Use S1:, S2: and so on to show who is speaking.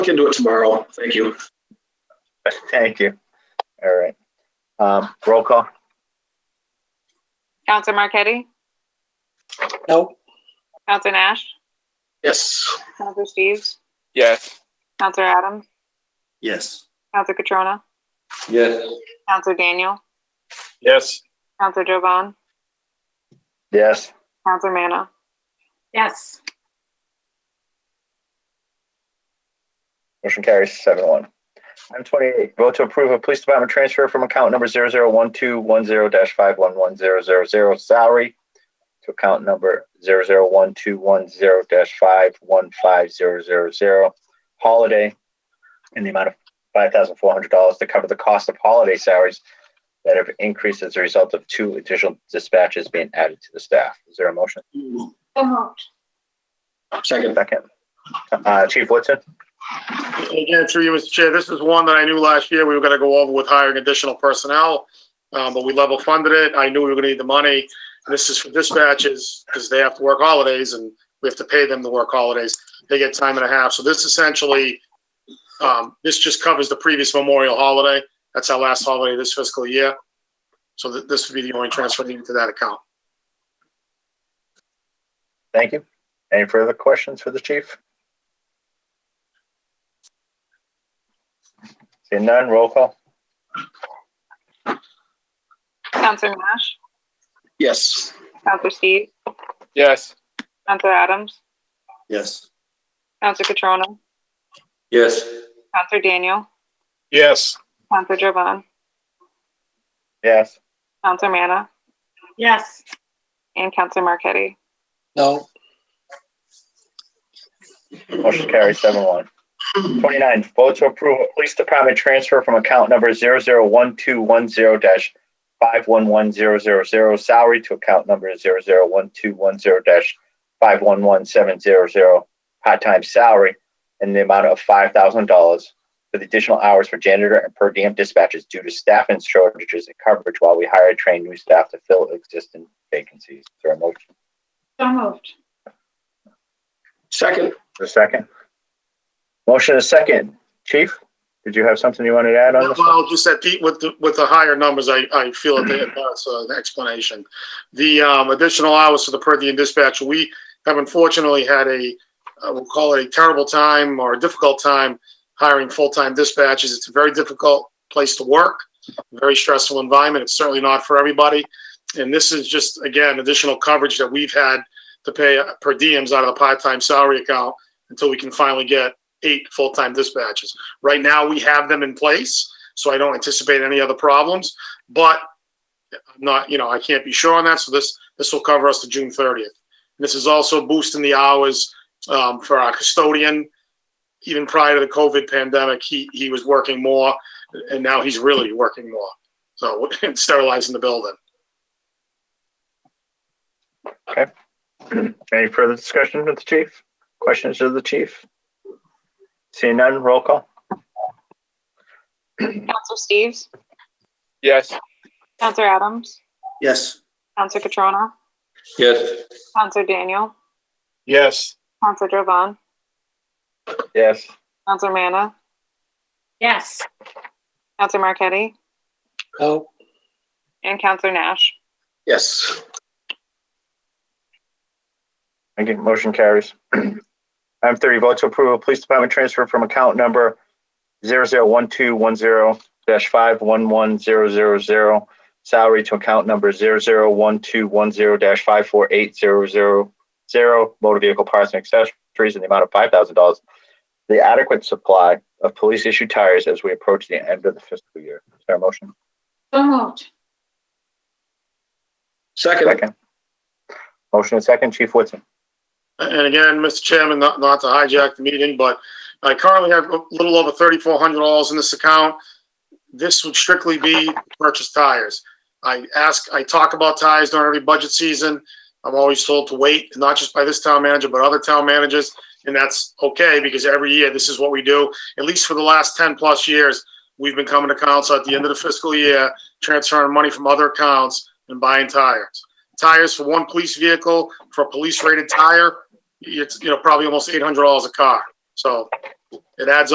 S1: look into it tomorrow. Thank you.
S2: Thank you. All right. Um, roll call.
S3: Counselor Marquetti?
S4: No.
S3: Counselor Nash?
S1: Yes.
S3: Counselor Steves?
S5: Yes.
S3: Counselor Adams?
S4: Yes.
S3: Counselor Catrona?
S4: Yes.
S3: Counselor Daniel?
S5: Yes.
S3: Counselor Jovan?
S2: Yes.
S3: Counselor Manna?
S6: Yes.
S2: Motion carries seven one. Item twenty-eight, vote to approve a police department transfer from account number zero zero one two one zero dash five one one zero zero zero salary to account number zero zero one two one zero dash five one five zero zero zero holiday in the amount of five thousand four hundred dollars to cover the cost of holiday salaries that have increased as a result of two additional dispatches being added to the staff. Is there a motion?
S6: So moved.
S1: Second.
S2: Second. Uh, Chief Woodson?
S7: Again, through you, Mr. Chair, this is one that I knew last year we were gonna go over with hiring additional personnel. Um, but we level funded it. I knew we were gonna need the money. This is for dispatches, because they have to work holidays and we have to pay them to work holidays. They get time and a half. So this essentially, um, this just covers the previous Memorial holiday. That's our last holiday this fiscal year. So th- this would be the only transfer needed to that account.
S2: Thank you. Any further questions for the chief? Seeing none, roll call.
S3: Counselor Nash?
S1: Yes.
S3: Counselor Steves?
S5: Yes.
S3: Counselor Adams?
S4: Yes.
S3: Counselor Catrona?
S4: Yes.
S3: Counselor Daniel?
S5: Yes.
S3: Counselor Jovan?
S2: Yes.
S3: Counselor Manna?
S6: Yes.
S3: And Counselor Marquetti?
S4: No.
S2: Motion carries seven one. Twenty-nine, vote to approve a police department transfer from account number zero zero one two one zero dash five one one zero zero zero salary to account number zero zero one two one zero dash five one one seven zero zero part-time salary in the amount of five thousand dollars for the additional hours for janitor and per diem dispatches due to staffing shortages and coverage while we hire and train new staff to fill existing vacancies. Is there a motion?
S6: So moved.
S1: Second.
S2: A second. Motion is second. Chief, did you have something you wanted to add on this?
S7: Well, just that Pete, with the, with the higher numbers, I, I feel that they- that's an explanation. The um, additional hours for the per diem dispatcher, we have unfortunately had a, uh, we'll call it a terrible time or a difficult time hiring full-time dispatchers. It's a very difficult place to work, very stressful environment. It's certainly not for everybody. And this is just, again, additional coverage that we've had to pay uh, per diems out of the part-time salary account until we can finally get eight full-time dispatchers. Right now, we have them in place so I don't anticipate any other problems. But I'm not, you know, I can't be sure on that. So this this will cover us to June 30th. This is also boosting the hours um, for our custodian. Even prior to the COVID pandemic, he he was working more, and now he's really working more. So and sterilizing the building.
S2: Any further discussion with the chief? Questions of the chief? Seeing none, roll call.
S3: Counselor Steves?
S5: Yes.
S3: Counselor Adams?
S4: Yes.
S3: Counselor Catrona?
S4: Yes.
S3: Counselor Daniel?
S5: Yes.
S3: Counselor Jovan?
S2: Yes.
S3: Counselor Manna?
S6: Yes.
S3: Counselor Marquetti?
S4: No.
S3: And Counselor Nash?
S1: Yes.
S2: Okay, motion carries. Item thirty, vote to approve a police department transfer from account number zero zero one two one zero dash five one one zero zero zero salary to account number zero zero one two one zero dash five four eight zero zero zero motor vehicle parts and accessories in the amount of five thousand dollars. The adequate supply of police issued tires as we approach the end of the fiscal year. Is there a motion?
S6: So moved.
S1: Second.
S2: Second. Motion and second, Chief Woodson.
S7: And again, Mr. Chairman, not, not to hijack the meeting, but I currently have a little over thirty-four hundred dollars in this account. This would strictly be to purchase tires. I ask, I talk about tires during every budget season. I'm always told to wait, not just by this town manager, but other town managers. And that's okay, because every year, this is what we do. At least for the last ten-plus years, we've been coming to council at the end of the fiscal year, transferring money from other accounts and buying tires. Tires for one police vehicle, for a police-rated tire, it's you know probably almost eight hundred dollars a car. So it adds